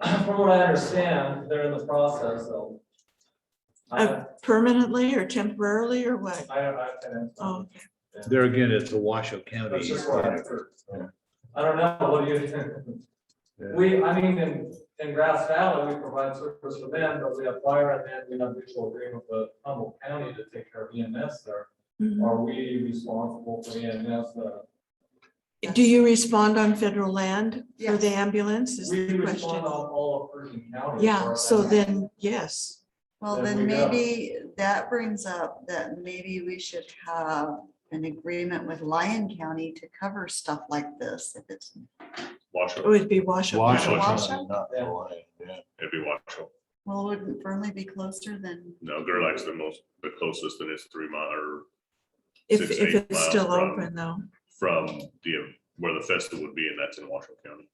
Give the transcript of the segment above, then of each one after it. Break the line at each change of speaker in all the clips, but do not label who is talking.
from what I understand, they're in the process of. I,
Uh, Permanently or temporarily or what?
I, I can.
Oh,
There again, it's a Washoe
That's
County.
just what I heard. I don't know, what do you think?
Yeah.
We, I mean, in, in Grass Valley, we provide service for them, but we have fire and then we have mutual agreement with Humboldt County to take care of EMS there.
mhm.
Are we responsible for EMS? uh,
Do you respond on federal land for the ambulance is
We
the
respond
question?
on all of Pershing County.
Yeah,
as
so
far as that.
then, yes,
Well,
There
then
we go.
maybe that brings up that maybe we should have an agreement with Lyon County to cover stuff like this. If it's,
it
Washoe,
would be Washoe.
Washoe.
Washoe?
Not
Yeah.
Hawaii, yeah.
it'd be Washoe.
well, wouldn't Burnley be closer than?
No, Gerlach's the most, the closest and it's three mile or
If,
Six,
if
eight
it's still
miles from-
open though.
from the, where the festival would be and that's in Washoe County.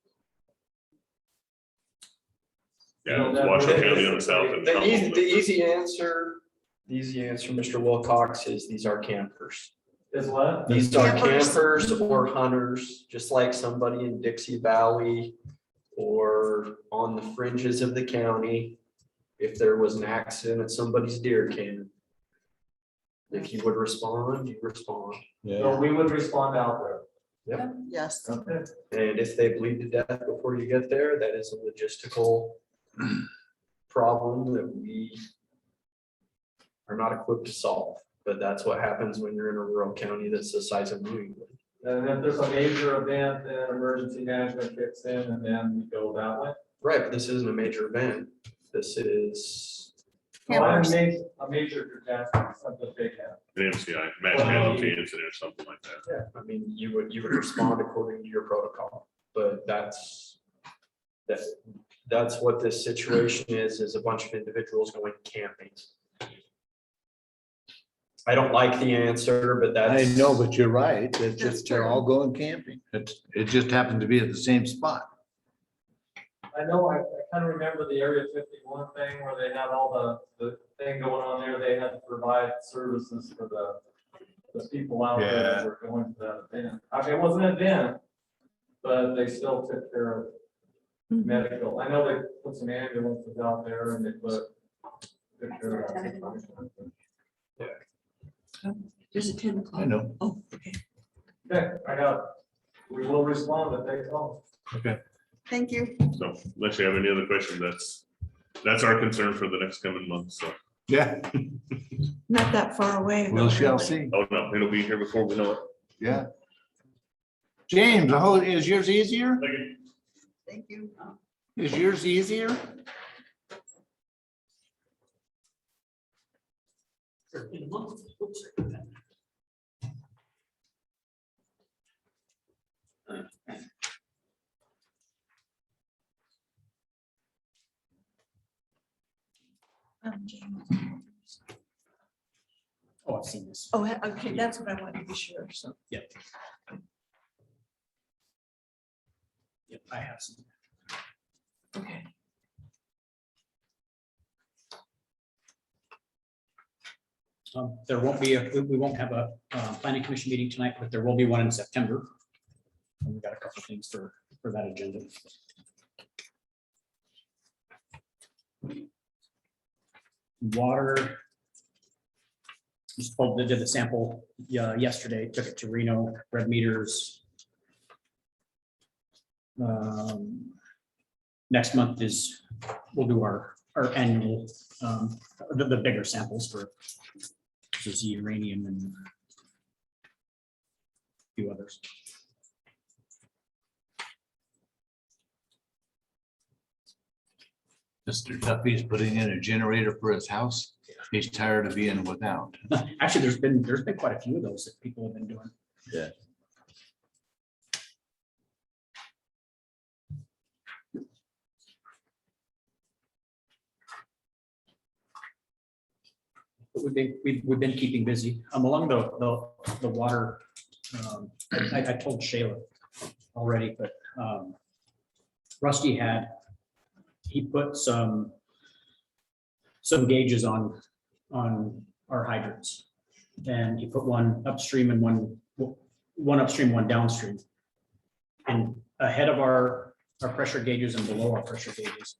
Yeah, it's Washoe County on the south and.
The easy,
Humboldt
the
is the-
easy answer, the easy answer, Mr. Wilcox, is these are campers.
Is what?
These are
Campers.
Uh, campers or hunters, just like somebody in Dixie Valley or on the fringes of the county. If there was an accident at somebody's deer camp. If you would respond, you respond.
So we would respond out there.
Yes,
Okay.
And if they bleed to death before you get there, that is a logistical problem that we are not equipped to solve, but that's what happens when you're in a rural county that's the size of New England.
And if there's a major event, then emergency management kicks in and then we go that way.
Right, but this isn't a major event. This is,
So I
Campers.
made a major catastrophe, something big happened.
An MCI, match casualty incident or something like that.
I mean, you would, you would respond according to your protocol, but that's that, that's what this situation is, is a bunch of individuals going camping. I don't like the answer, but
I
that's.
know, but you're right. It's
That's
just, they're
true.
all going camping. It's, it just happened to be at the same spot.
I know, I, I kind of remember the Area fifty-one thing where they had all the, the thing going on there. They had to provide services for the, the people out there that were going to that event. I mean, it wasn't an event, but they still took care of
Mhm.
medical. I know they put some ambulances out there and they put. took care of-
There's a ten o'clock.
I know.
Oh, okay.
Okay, I got, it. we will respond if they call.
thank you.
So unless you have any other questions, that's, that's our concern for the next coming month. So,
Yeah,
Not that far away.
we
though,
shall
really.
see.
oh no, it'll be here before we know it.
Yeah. James, oh, is yours easier?
Thank you.
Thank you.
Is yours easier?
Oh, I've seen this.
Oh, he- okay, that's what I wanted to be sure, so.
Yep, I have seen.
Okay.
Um, there won't be, a we, we won't have a, uh, planning commission meeting tonight, but there will be one in September. And we've got a couple things for, for that agenda. Water. Just pulled, they did the sample, yeah, yesterday, took it to Reno, red meters. Um, Next month is, we'll do our, our annual, um, the, the bigger samples for which is uranium and a few others.
Mr. Duffy's putting in a generator for his house. He's tired of being without.
Actually, there's been, there's been quite a few of those that people have been doing.
Yeah.
But We've been, we've, we've been keeping busy. Um, along the, the, the water, um, I, I told Shayla already, but, um, Rusty had, he put some, some gauges on, on our hydrants. And he put one upstream and one, one upstream, one downstream. And ahead of our, our pressure gauges and below our pressure gauges.